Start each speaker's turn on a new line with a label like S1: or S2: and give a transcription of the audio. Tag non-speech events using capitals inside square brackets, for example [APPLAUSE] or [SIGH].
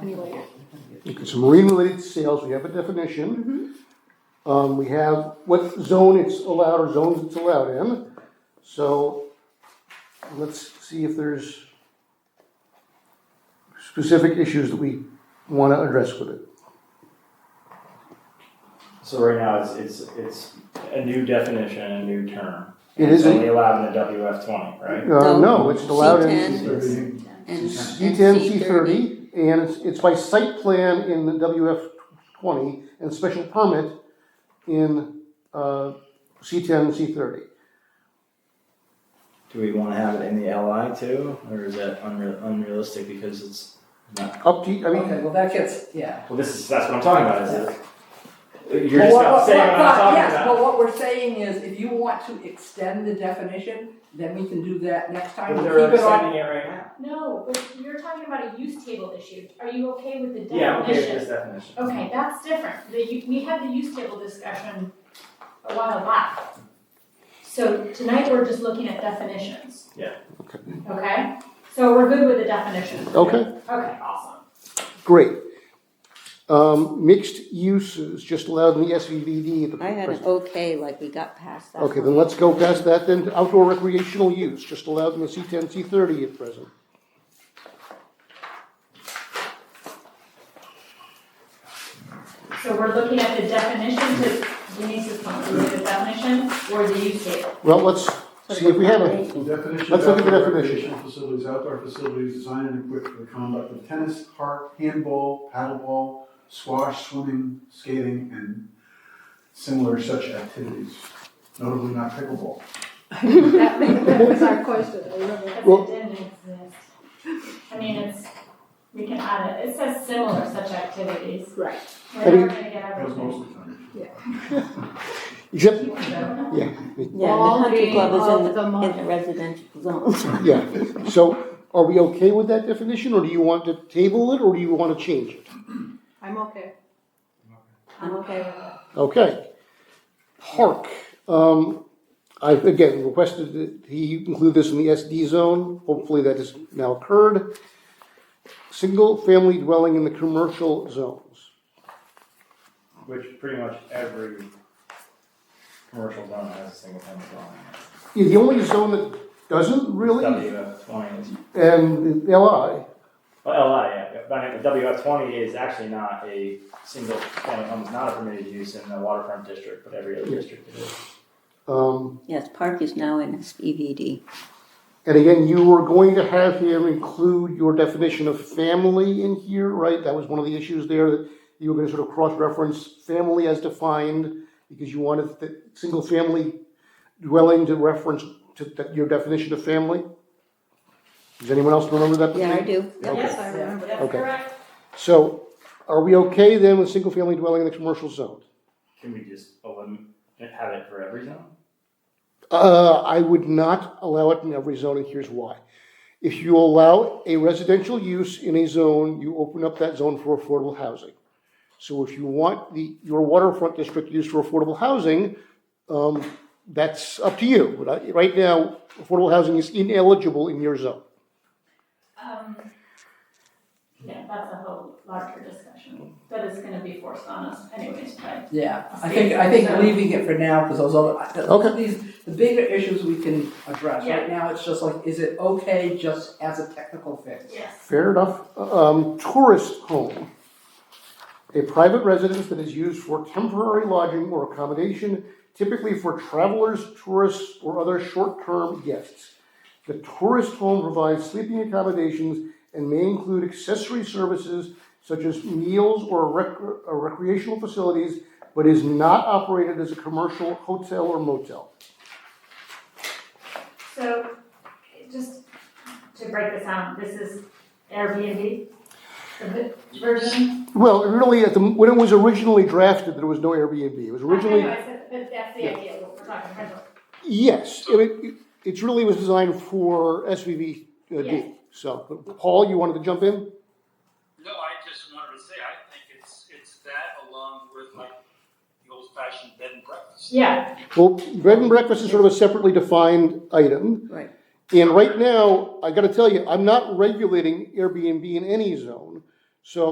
S1: anyway.
S2: Okay, so marine-related sales, we have a definition. Um, we have what zone it's allowed or zones it's allowed in. So let's see if there's specific issues that we wanna address with it.
S3: So right now, it's, it's, it's a new definition, a new term.
S2: It is
S3: It's
S2: a-
S3: only allowed in the WF twenty, right?
S2: Uh, no, it's allowed
S4: C10.
S2: in
S3: It's-
S4: And
S2: C ten, C thirty, and it's, it's by site plan in the WF twenty and special permit in, uh, C ten, C thirty.
S3: Do we wanna have it in the LI too, or is that unreal, unrealistic because it's not?
S2: Up to, I mean,
S1: Okay, well, that gets, yeah.
S3: Well, this is, that's what I'm talking about, is it? You're
S1: Well,
S3: just
S1: what-
S3: not saying
S1: what-
S3: what I'm talking
S1: Yes,
S3: about.
S1: but what we're saying is, if you want to extend the definition, then we can do that next time,
S3: But
S1: keep
S3: they're
S1: it on.
S3: extending it right now.
S5: No, but you're talking about a use table issue. Are you okay with the definition?
S3: Yeah, I'm okay with this definition.
S5: Okay, that's different. The, u- we had the use table discussion a while back. So tonight, we're just looking at definitions.
S3: Yeah.
S2: Okay.
S5: Okay, so we're good with the definition.
S2: okay.
S5: Okay, awesome.
S2: Great. Um, mixed use is just allowed in the SVVD at the
S4: I had an
S2: present.
S4: okay, like we got past that.
S2: Okay, then let's go past that then to outdoor recreational use, just allowed in the C ten, C thirty at present.
S5: So we're looking at the definition to Denise's point, is it the definition or the use table?
S2: Well, let's see if we have a,
S4: it.
S6: Definition.
S2: Let's look at the
S6: outdoor
S2: definition.
S6: recreational Facilities, outdoor facilities designed and equipped for the conduct of tennis, park, handball, paddleball, squash, swimming, skating, and similar such activities, notably not pickleball.
S7: That [LAUGHS] ma- that was our question, I remember.
S2: Well-
S5: Because it didn't exist. I mean, it's, we can add it, it says similar such activities.
S7: Right.
S5: We're
S2: mean-
S5: not gonna get
S6: That was
S5: everything.
S6: mostly tennis.
S2: except,
S4: Yeah, the
S7: All
S4: country
S7: being
S4: club
S7: all
S4: is
S7: the
S4: in,
S7: money.
S4: in the residential zone.
S2: yeah. So are we okay with that definition, or do you want to table it, or do you want to change it?
S7: I'm okay.
S4: I'm okay with that.
S2: Okay. Park, um, I've again requested that he include this in the SD zone, hopefully that has now occurred. Single-family dwelling in the commercial zones.
S3: Which pretty much every commercial zone has a single family dwelling.
S2: Yeah, the only zone that doesn't really,
S3: WF twenty is
S2: and LI,
S3: Well, LI, yeah, but I mean, the WF twenty is actually not a single family home, it's not a permitted use in the waterfront district, but every other
S2: Yeah.
S3: district it is.
S2: um,
S4: Yes, park is now in SPVD.
S2: and again, you were going to have him include your definition of family in here, right? That was one of the issues there, that you were gonna sort of cross-reference family as defined, because you wanted the single-family dwelling to reference to th- your definition of family? Does anyone else remember that?
S4: Yeah, I do.
S7: Yes, I remember.
S5: That's
S2: Okay.
S5: correct.
S2: So, are we okay then with single-family dwelling in the commercial zone?
S3: Can we just eliminate, have it for every zone?
S2: Uh, I would not allow it in every zone, and here's why. If you allow a residential use in a zone, you open up that zone for affordable housing. So if you want the, your waterfront district used for affordable housing, um, that's up to you. But I, right now, affordable housing is ineligible in your zone.
S5: Um, yeah, that's a whole larger discussion, that is gonna be forced on us anyways, but.
S1: Yeah, I think, I think leaving it for now, because those other, the-
S2: Okay.
S1: these, the bigger issues we can address.
S5: Yeah.
S1: Right now, it's just like, is it okay just as a technical fix?
S5: Yes.
S2: Fair enough. Um, tourist home. A private residence that is used for temporary lodging or accommodation, typically for travelers, tourists, or other short-term guests. The tourist home provides sleeping accommodations and may include accessory services such as meals or rec- or recreational facilities, but is not operated as a commercial hotel or motel.
S5: So, just to break this down, this is Airbnb, the vi- version?
S2: Well, really, at the, when it was originally drafted, there was no Airbnb. It was originally
S5: I know, I said, but that's the idea, what we're talking rental.
S2: Yes, it, it, it's really was designed for SVV uh,
S5: Yes.
S2: D. So, but Paul, you wanted to jump in?
S8: No, I just wanted to say, I think it's, it's that along with like the old fashioned bed and breakfast.
S5: Yeah,
S2: Well, bed and breakfast is sort of a separately defined item.
S4: Right.
S2: And right now, I gotta tell you, I'm not regulating Airbnb in any zone. So